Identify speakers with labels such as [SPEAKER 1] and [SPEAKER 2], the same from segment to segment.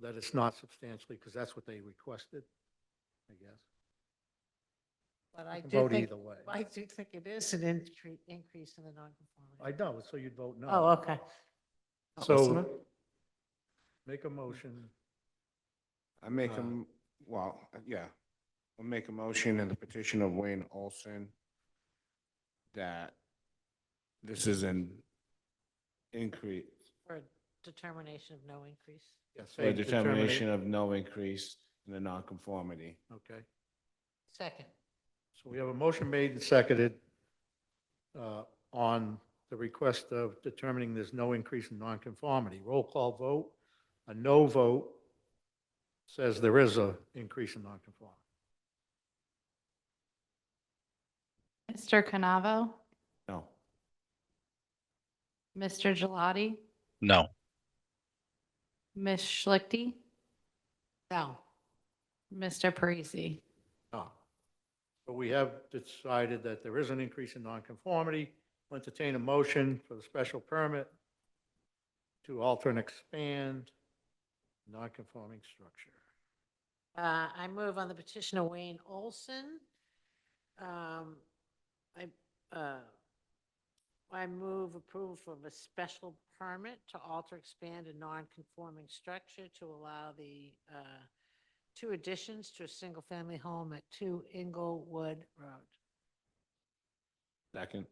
[SPEAKER 1] that it's not substantially, because that's what they requested, I guess.
[SPEAKER 2] But I
[SPEAKER 1] You can
[SPEAKER 2] do
[SPEAKER 1] Vote
[SPEAKER 2] think,
[SPEAKER 1] either way.
[SPEAKER 2] I do think it is an incre- increase in the
[SPEAKER 1] I
[SPEAKER 2] nonconformity.
[SPEAKER 1] know, so you'd vote no.
[SPEAKER 2] Oh, okay. Oh,
[SPEAKER 1] So make a motion.
[SPEAKER 3] I make
[SPEAKER 1] Uh,
[SPEAKER 3] him, well, uh, yeah, I'll make a motion in the petition of Wayne Olson that this is an increase,
[SPEAKER 2] For a determination of no increase.
[SPEAKER 1] yes,
[SPEAKER 3] a
[SPEAKER 1] say
[SPEAKER 3] determination of no increase in the nonconformity.
[SPEAKER 1] Okay,
[SPEAKER 2] Second.
[SPEAKER 1] so we have a motion made and seconded uh, on the request of determining there's no increase in nonconformity. Roll call vote. A no vote says there is a increase in nonconformity.
[SPEAKER 4] Mr. Canavo,
[SPEAKER 3] No.
[SPEAKER 4] Mr. Gelati,
[SPEAKER 5] No.
[SPEAKER 4] Ms. Schlichty,
[SPEAKER 2] No.
[SPEAKER 4] Mr. Parisi.
[SPEAKER 1] No. But we have decided that there is an increase in nonconformity. We'll Entertain a motion for the special permit to alter and expand nonconforming structure.
[SPEAKER 2] Uh, I move on the petition of Wayne Olson. Um, I, uh, I move approval for a special permit to alter, expand a non-conforming structure to allow the, uh, two additions to a single-family home at two Inglewood Road.
[SPEAKER 3] Second.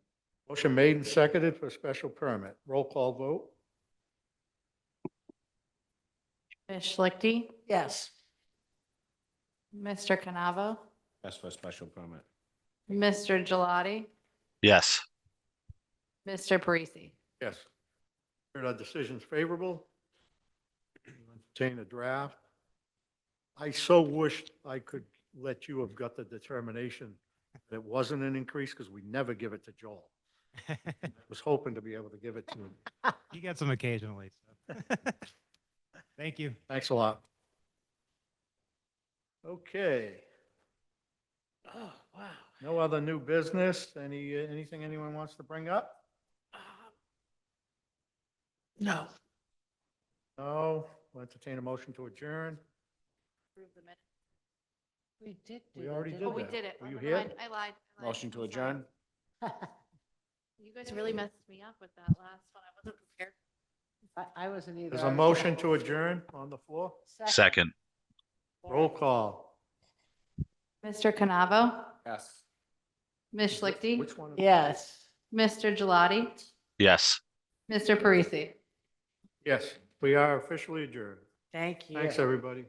[SPEAKER 1] Motion made and seconded for a special permit. Roll call vote?
[SPEAKER 4] Ms. Schlichty,
[SPEAKER 2] Yes.
[SPEAKER 4] Mr. Canavo,
[SPEAKER 3] That's for a special permit.
[SPEAKER 4] Mr. Gelati,
[SPEAKER 5] Yes.
[SPEAKER 4] Mr. Parisi.
[SPEAKER 1] Yes. Heard our decision's favorable. Entertain a draft. I so wished I could let you have got the determination that it wasn't an increase because we never give it to Joel. I Was hoping to be able to give it to him.
[SPEAKER 6] You get some occasionally. So. Thank you.
[SPEAKER 1] Thanks a lot. Okay,
[SPEAKER 2] Oh, wow.
[SPEAKER 1] no other new business? Any, anything anyone wants to bring up?
[SPEAKER 2] Um, No.
[SPEAKER 1] No? We'll Entertain a motion to adjourn?
[SPEAKER 2] We did do
[SPEAKER 1] We
[SPEAKER 2] that,
[SPEAKER 1] already
[SPEAKER 2] didn't
[SPEAKER 1] did
[SPEAKER 4] Oh, we
[SPEAKER 1] that.
[SPEAKER 4] did it.
[SPEAKER 1] Were
[SPEAKER 4] Oh,
[SPEAKER 1] you
[SPEAKER 4] never
[SPEAKER 1] here?
[SPEAKER 4] mind. I lied. I lied.
[SPEAKER 3] Motion to
[SPEAKER 4] I'm sorry.
[SPEAKER 3] adjourn?
[SPEAKER 4] You guys really messed me up with that last one. I wasn't prepared.
[SPEAKER 2] I, I wasn't either.
[SPEAKER 1] There's a motion to adjourn on the floor?
[SPEAKER 5] Second.
[SPEAKER 1] Roll call.
[SPEAKER 4] Mr. Canavo,
[SPEAKER 3] Yes.
[SPEAKER 4] Ms. Schlichty,
[SPEAKER 1] Which one? is-
[SPEAKER 2] Yes.
[SPEAKER 4] Mr. Gelati,
[SPEAKER 5] Yes.
[SPEAKER 4] Mr. Parisi.
[SPEAKER 1] Yes, we are officially adjourned.
[SPEAKER 2] Thank you.
[SPEAKER 1] Thanks, everybody.